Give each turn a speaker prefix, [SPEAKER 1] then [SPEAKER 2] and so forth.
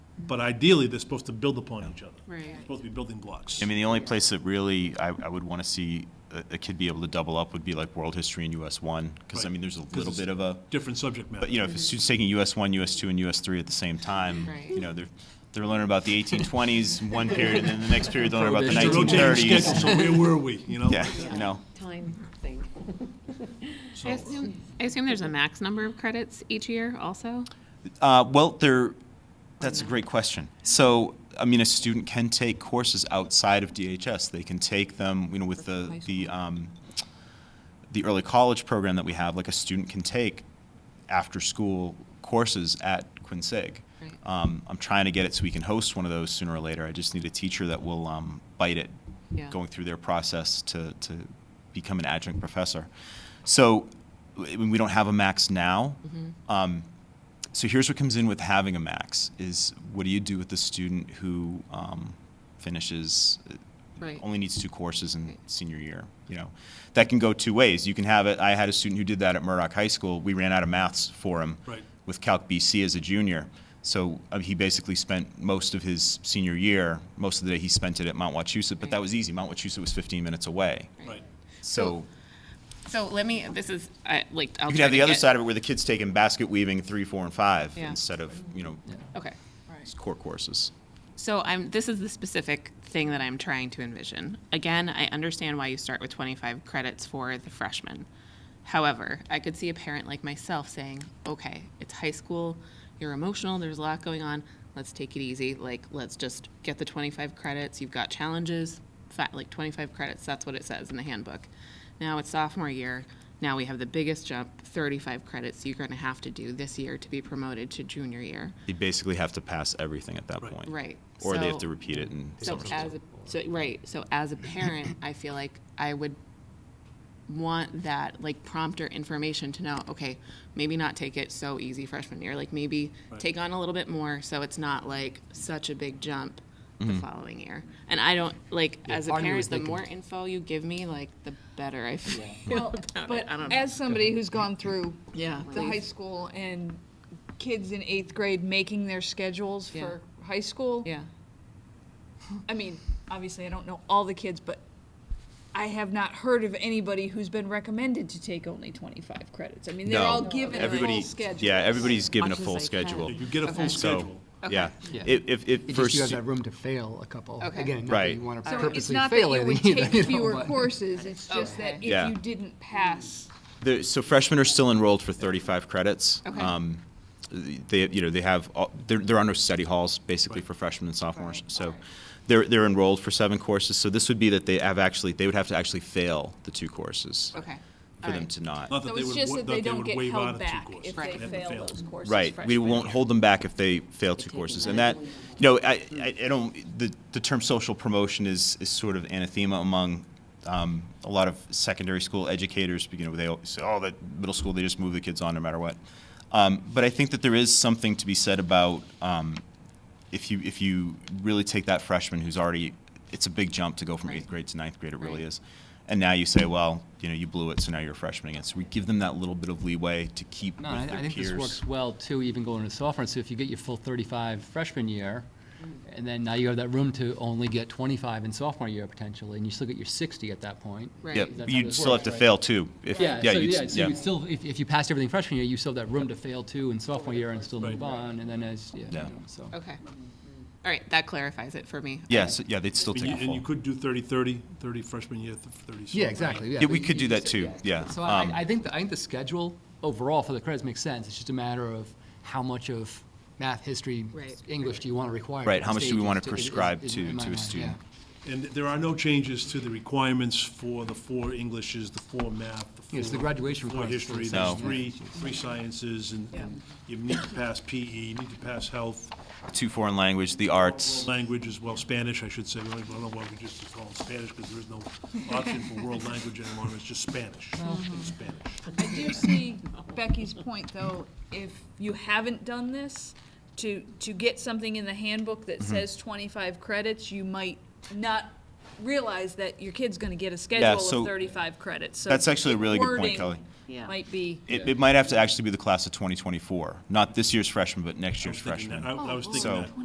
[SPEAKER 1] but ideally, they're supposed to build upon each other.
[SPEAKER 2] Right.
[SPEAKER 1] They're Supposed to be building blocks.
[SPEAKER 3] I mean, the only place that really I, I would want to see a, a kid be able to double up would be like world history and US one, because I
[SPEAKER 1] Right.
[SPEAKER 3] mean, there's a
[SPEAKER 1] 'Cause
[SPEAKER 3] little
[SPEAKER 1] it's
[SPEAKER 3] bit of a,
[SPEAKER 1] Different subject matter.
[SPEAKER 3] but you know, if a student's taking US one, US two, and US three at the same time,
[SPEAKER 2] Right.
[SPEAKER 3] you know, they're they're learning about the 1820s in one period, and then the next period they'll learn about the
[SPEAKER 1] It's a rotating
[SPEAKER 3] 1930s.
[SPEAKER 1] schedule, So where were we, you know?
[SPEAKER 3] Yeah, you know,
[SPEAKER 4] Time thing.
[SPEAKER 1] So-
[SPEAKER 2] I assume, I assume there's a max number of credits each year also?
[SPEAKER 3] uh, well, there. That's a great question. So, I mean, a student can take courses outside of DHS. They can take them, you know, with the the um, the early college program that we have. Like a student can take after school courses at Quinsig.
[SPEAKER 2] Right.
[SPEAKER 3] Um, I'm trying to get it so we can host one of those sooner or later. I just need a teacher that will um, bite it
[SPEAKER 2] Yeah.
[SPEAKER 3] going through their process to, to become an adjunct professor. So w- we don't have a max now. Um, so here's what comes in with having a max is what do you do with the student who um, finishes uh,
[SPEAKER 2] Right.
[SPEAKER 3] only needs two courses in
[SPEAKER 2] Right.
[SPEAKER 3] senior year you know that can go two ways you can have it i had a student who did that at murdoch high school we ran out of maths for him
[SPEAKER 1] Right.
[SPEAKER 3] with calc bc as a junior so uh, he basically spent most of his senior year most of the day he spent it at mount wachusett but that
[SPEAKER 2] Right.
[SPEAKER 3] was easy mount wachusett was 15 minutes away
[SPEAKER 1] Right.
[SPEAKER 3] so
[SPEAKER 2] So let me, this is, I, like, I'll try
[SPEAKER 3] you can have
[SPEAKER 2] to
[SPEAKER 3] the other
[SPEAKER 2] get-
[SPEAKER 3] side of it where the kids taking basket weaving three four and five
[SPEAKER 2] Yeah.
[SPEAKER 3] instead of you know
[SPEAKER 2] Okay.
[SPEAKER 3] core courses
[SPEAKER 2] So I'm, this is the specific thing that I'm trying to envision. Again, I understand why you start with 25 credits for the freshman. However, I could see a parent like myself saying, okay, it's high school, you're emotional, there's a lot going on, let's take it easy. Like, let's just get the 25 credits, you've got challenges, fa- like 25 credits, that's what it says in the handbook. Now it's sophomore year, now we have the biggest jump, 35 credits you're gonna have to do this year to be promoted to junior year.
[SPEAKER 3] they basically have to pass everything at that
[SPEAKER 1] Right.
[SPEAKER 3] point
[SPEAKER 2] Right.
[SPEAKER 3] or they have
[SPEAKER 2] So-
[SPEAKER 3] to repeat it and
[SPEAKER 2] so as a, so right so as a parent i feel like i would want that like prompter information to know okay maybe not take it so easy freshman year like maybe take on a little bit more so it's not like such a big jump the following year and i don't like as a
[SPEAKER 5] Arnie
[SPEAKER 2] parent
[SPEAKER 5] was
[SPEAKER 2] the
[SPEAKER 5] thinking-
[SPEAKER 2] more info you give me like the better i feel about
[SPEAKER 6] But
[SPEAKER 2] it. i don't know
[SPEAKER 6] as somebody who's gone through
[SPEAKER 2] yeah
[SPEAKER 6] the high school and kids in eighth grade making their schedules
[SPEAKER 2] Yeah.
[SPEAKER 6] for high school,
[SPEAKER 2] yeah
[SPEAKER 6] I mean, obviously I don't know all the kids, but I have not heard of anybody who's been recommended to take only twenty-five credits. I mean, they're
[SPEAKER 3] No.
[SPEAKER 6] all given a full
[SPEAKER 3] Everybody,
[SPEAKER 6] schedule.
[SPEAKER 3] yeah, everybody's given a
[SPEAKER 4] Much as
[SPEAKER 3] full
[SPEAKER 4] I can.
[SPEAKER 3] schedule.
[SPEAKER 1] You get a full
[SPEAKER 3] So,
[SPEAKER 1] schedule.
[SPEAKER 3] yeah,
[SPEAKER 5] Yeah.
[SPEAKER 3] if, if, if
[SPEAKER 5] It just, you
[SPEAKER 3] first,
[SPEAKER 5] have that room to fail a couple.
[SPEAKER 2] Okay.
[SPEAKER 5] Again, not that
[SPEAKER 3] Right.
[SPEAKER 5] you want to
[SPEAKER 6] So it's
[SPEAKER 5] purposely
[SPEAKER 6] not that you
[SPEAKER 5] fail
[SPEAKER 6] would
[SPEAKER 5] it either.
[SPEAKER 6] take
[SPEAKER 5] you know,
[SPEAKER 6] fewer
[SPEAKER 5] but-
[SPEAKER 6] courses, it's just that if
[SPEAKER 3] Yeah.
[SPEAKER 6] you didn't pass,
[SPEAKER 3] the- so freshmen are still enrolled for thirty-five credits.
[SPEAKER 2] Okay.
[SPEAKER 3] Um, They, you know, they have, all- there, there are no study halls basically
[SPEAKER 1] Right.
[SPEAKER 3] for freshmen and sophomores, so they're, they're enrolled for seven courses, so this would be that they have actually, they would have to actually fail the two courses
[SPEAKER 2] okay
[SPEAKER 3] for them to not.
[SPEAKER 1] Not
[SPEAKER 6] so
[SPEAKER 1] that they
[SPEAKER 6] it's
[SPEAKER 1] would,
[SPEAKER 6] just
[SPEAKER 1] wa- not
[SPEAKER 6] that they
[SPEAKER 1] they
[SPEAKER 6] don't
[SPEAKER 1] would
[SPEAKER 6] get
[SPEAKER 1] waive out
[SPEAKER 6] held
[SPEAKER 1] of two
[SPEAKER 6] back
[SPEAKER 1] courses.
[SPEAKER 6] if
[SPEAKER 1] They
[SPEAKER 6] they
[SPEAKER 1] have to fail
[SPEAKER 6] fail those
[SPEAKER 1] them.
[SPEAKER 6] courses.
[SPEAKER 3] Right, we
[SPEAKER 6] freshman
[SPEAKER 3] won't
[SPEAKER 6] year.
[SPEAKER 3] hold them back if they fail two courses, and that, you know, I, I, I don't, the, the term social promotion is, is sort of anathema among, um, a lot of secondary school educators, you know, they all say, oh, that middle school, they just move the kids on no matter what. Um, but I think that there is something to be said about, um, if you, if you really take that freshman who's already, it's a big jump to go from eighth grade to ninth grade, it really
[SPEAKER 2] Right.
[SPEAKER 3] is. And now you say, well, you know, you blew it, so now you're a freshman again, so we give them that little bit of leeway to keep with
[SPEAKER 5] No, I
[SPEAKER 3] their
[SPEAKER 5] I think this
[SPEAKER 3] peers.
[SPEAKER 5] works well too, even going into sophomore. So if you get your full 35 freshman year,
[SPEAKER 6] Mm.
[SPEAKER 5] and then now you have that room to only get 25 in sophomore year potentially, and you still get your 60 at that point.
[SPEAKER 2] right
[SPEAKER 3] Yeah,
[SPEAKER 5] That's how
[SPEAKER 3] you'd
[SPEAKER 5] this
[SPEAKER 3] still have
[SPEAKER 5] works,
[SPEAKER 3] to
[SPEAKER 5] right?
[SPEAKER 3] fail too. If,
[SPEAKER 5] Yeah, so
[SPEAKER 3] you'd-
[SPEAKER 5] yeah, so you still, if, if you passed everything freshman year, you still have that room to fail too in sophomore year and still
[SPEAKER 1] Right.
[SPEAKER 5] move on, and then as, yeah, you
[SPEAKER 3] Yeah.
[SPEAKER 5] know, so.
[SPEAKER 2] okay all right that clarifies it for me
[SPEAKER 3] Yeah, so- yeah, they'd still
[SPEAKER 1] And
[SPEAKER 3] take
[SPEAKER 1] you-
[SPEAKER 3] a
[SPEAKER 1] and you
[SPEAKER 3] full.
[SPEAKER 1] could do 30, 30, 30 freshman year, th- 30.
[SPEAKER 5] Yeah,
[SPEAKER 1] sophomore.
[SPEAKER 5] exactly, yeah.
[SPEAKER 3] Yeah,
[SPEAKER 5] but
[SPEAKER 3] we
[SPEAKER 5] you-
[SPEAKER 3] could do
[SPEAKER 5] you
[SPEAKER 3] that
[SPEAKER 5] said-
[SPEAKER 3] too, yeah.
[SPEAKER 5] So I,
[SPEAKER 3] Um,
[SPEAKER 5] I- I think, the- I think the schedule overall for the credits makes sense. It's just a matter of how much of math, history,
[SPEAKER 2] Right.
[SPEAKER 5] English do you want to require?
[SPEAKER 3] Right,
[SPEAKER 5] at
[SPEAKER 3] how much do we
[SPEAKER 5] stages
[SPEAKER 3] wanna
[SPEAKER 5] is- is-
[SPEAKER 3] prescribe
[SPEAKER 5] is-
[SPEAKER 3] to-
[SPEAKER 5] in my
[SPEAKER 3] to a
[SPEAKER 5] mind, yeah.
[SPEAKER 3] student?
[SPEAKER 1] And there are no changes to the requirements for the four Englishes, the four math, the four.
[SPEAKER 5] Yes, the graduation
[SPEAKER 1] Four
[SPEAKER 5] requirements
[SPEAKER 1] history,
[SPEAKER 5] for
[SPEAKER 1] there's
[SPEAKER 3] the-
[SPEAKER 1] three, three sciences, and and you need to pass PE, you need to pass health,
[SPEAKER 3] Two foreign language, the arts,
[SPEAKER 1] language as well, Spanish, I should say, I don't know why we just call it Spanish, because there is no option for world language anymore, it's just Spanish, It's Spanish.
[SPEAKER 6] I do see Becky's point, though, if you haven't done this, to, to get something in the handbook that
[SPEAKER 3] Mm-hmm.
[SPEAKER 6] says twenty-five credits, you might not realize that your kid's gonna get a schedule
[SPEAKER 3] so-
[SPEAKER 6] of thirty-five credits, so.
[SPEAKER 3] That's actually a really good point,
[SPEAKER 6] wording
[SPEAKER 3] Kelly.
[SPEAKER 4] Yeah.
[SPEAKER 6] Might be,
[SPEAKER 3] it, it might have to actually be the class of 2024, not this year's freshman, but next
[SPEAKER 1] I
[SPEAKER 3] year's
[SPEAKER 1] was thinking that-
[SPEAKER 3] freshman.
[SPEAKER 1] I I was thinking
[SPEAKER 3] So-
[SPEAKER 1] that.